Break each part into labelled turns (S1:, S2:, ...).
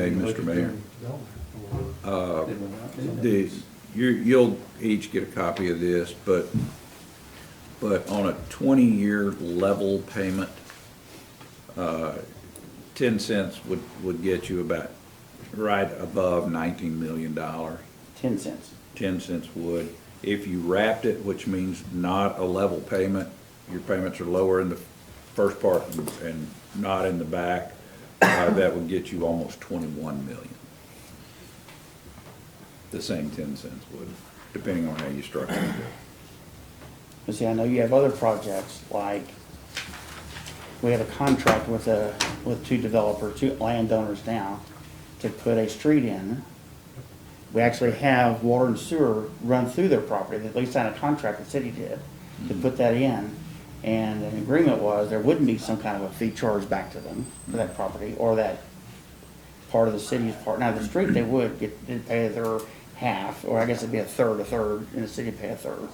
S1: Mr. Mayor. Uh,
S2: Did we not do that?
S1: The, you, you'll each get a copy of this, but, but on a twenty-year level payment, uh, ten cents would, would get you about right above nineteen million dollars.
S2: Ten cents.
S1: Ten cents would. If you wrapped it, which means not a level payment, your payments are lower in the first part and- and not in the back, uh, that would get you almost twenty-one million. The same ten cents would, depending on how you structure it.
S2: But see, I know you have other projects, like, we have a contract with a, with two developers, two landowners now, to put a street in. We actually have water and sewer run through their property, at least signed a contract, the city did, to put that in. And an agreement was, there wouldn't be some kind of a fee charged back to them for that property, or that part of the city's part. Now, the street, they would get, they'd pay their half, or I guess it'd be a third, a third, and the city pay a third.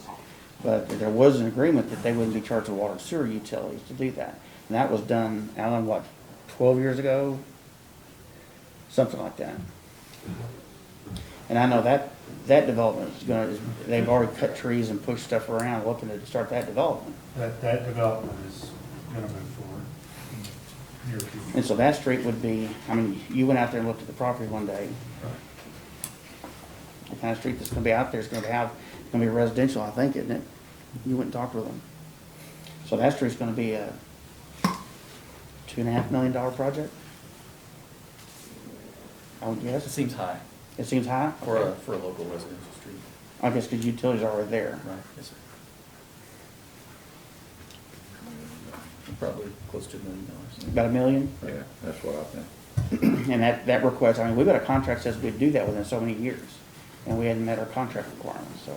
S2: But there was an agreement that they wouldn't be charged with water and sewer utilities to do that. And that was done, Alan, what, twelve years ago? Something like that. And I know that, that development is gonna, is- they've already cut trees and pushed stuff around looking to start that development.
S3: That, that development is gonna move forward in near future.
S2: And so that street would be, I mean, you went out there and looked at the property one day, the kind of street that's gonna be out there is gonna have, it's gonna be residential, I think, isn't it? You went and talked with them. So that street's gonna be a two and a half million dollar project? I would
S4: It
S2: guess.
S4: seems high
S2: It seems high?
S4: for a, for a local residential street.
S2: I guess because utilities are already there.
S4: Right. Yes, sir. Probably close to a million dollars.
S2: About a million?
S1: Yeah, that's what I think.
S2: And that, that request, I mean, we've got a contract says we'd do that within so many years, and we hadn't met our contract requirements, so.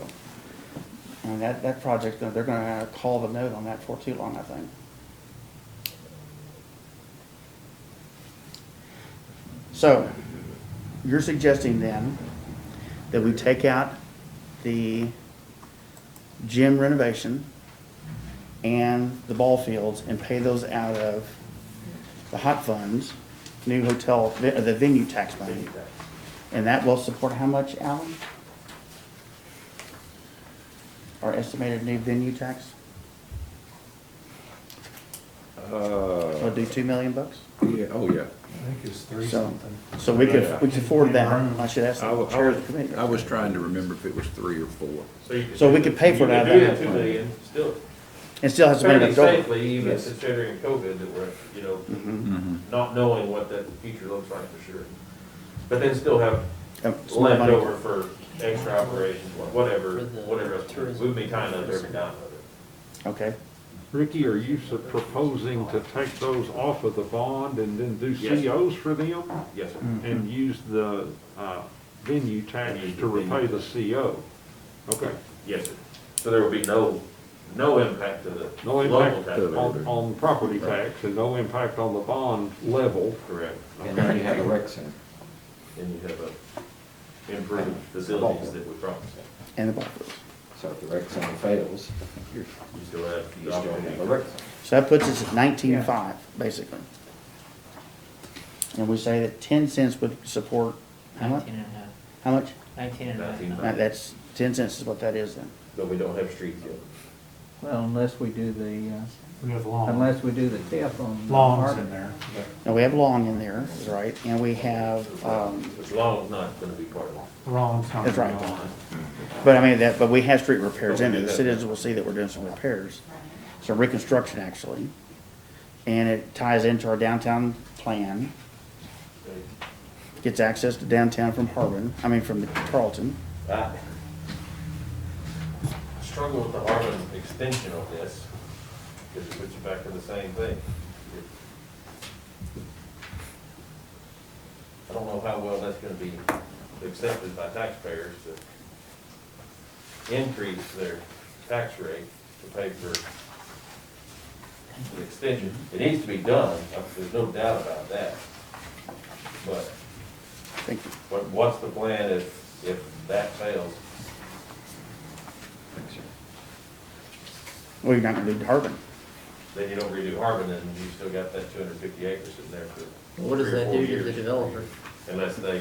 S2: And that, that project, they're gonna have to call the note on that for too long, I think. So, you're suggesting then that we take out the gym renovation and the ball fields and pay those out of the hot funds, new hotel, the the venue tax money. And that will support how much, Alan? Our estimated new venue tax? We'll
S1: Uh,
S2: do two million bucks?
S1: yeah, oh, yeah.
S3: I think it's three
S2: So,
S3: something.
S2: so we
S1: Yeah.
S2: could, we could afford that. I should ask
S1: I
S2: the
S1: was,
S2: chair of the committee.
S1: I was trying to remember if it was three or four.
S2: So we could pay for it out of
S5: You
S2: that.
S5: could do that two million, still,
S2: And still has to be
S5: fairly
S2: enough over.
S5: safely, even
S2: Yes.
S5: considering COVID, that we're, you know,
S2: Mhm.
S1: Mm-hmm.
S5: not knowing what that future looks like for sure. But then still have
S2: Um, some
S5: left
S2: money.
S5: over for extra operations, wha- whatever,
S4: For the
S5: whatever, else.
S4: tourism.
S5: we'd be tying up every dime of it.
S2: Okay,
S6: Ricky, are you su- proposing to take those off of the bond and then do
S5: Yes.
S6: COs for them?
S5: Yes, sir.
S2: Mm.
S6: And use the uh, venue tax
S5: And use the
S6: to repay
S5: venue
S6: the CO? Okay.
S5: yes, sir. So there will be no, no impact to the
S6: No
S5: local
S6: impact
S5: tax.
S1: to-
S6: on, on property tax and no impact on the bond level.
S5: Correct.
S7: And then you have a rec center.
S5: And you have a improved facilities that we promised.
S2: and the buffers.
S7: So if the rec center fails,
S5: You still have
S7: you
S5: the
S7: still
S5: opportunity.
S7: have a rec center.
S2: So that puts us at nineteen-five, basically. And we say that ten cents would support, how much?
S8: Nineteen and a half.
S2: How much?
S8: Nineteen and a half.
S5: Nineteen.
S2: Uh, That's, ten cents is what that is then.
S5: But we don't have streets yet.
S9: Well, unless we do the,
S3: We have
S9: uh,
S3: lawn,
S9: unless we do the TIF on.
S3: lawns in there.
S2: Now, we have long in there, is right, and we have, um,
S5: Which long is not gonna be part of it.
S3: Lawn's not
S2: That's
S3: gonna
S2: right.
S3: be on.
S2: but I mean, that, but we have street repairs in it. The citizens will see that we're doing some repairs. So reconstruction, actually. And it ties into our downtown plan, gets access to downtown from Harbin, I mean, from Tarleton.
S5: I Struggle with the Harmon extension on this, because it puts you back to the same thing. I don't know how well that's gonna be accepted by taxpayers to increase their tax rate to pay for the extension. It needs to be done, uh, there's no doubt about that. But
S2: Thank you.
S5: what, what's the plan if, if that fails?
S2: Well, you're not gonna do Harbin.
S5: Then you don't redo Harbin, and you still got that two hundred fifty acres sitting there for
S4: What does
S5: three or
S4: that
S5: four
S4: do to the
S5: years.
S4: developer?
S5: unless they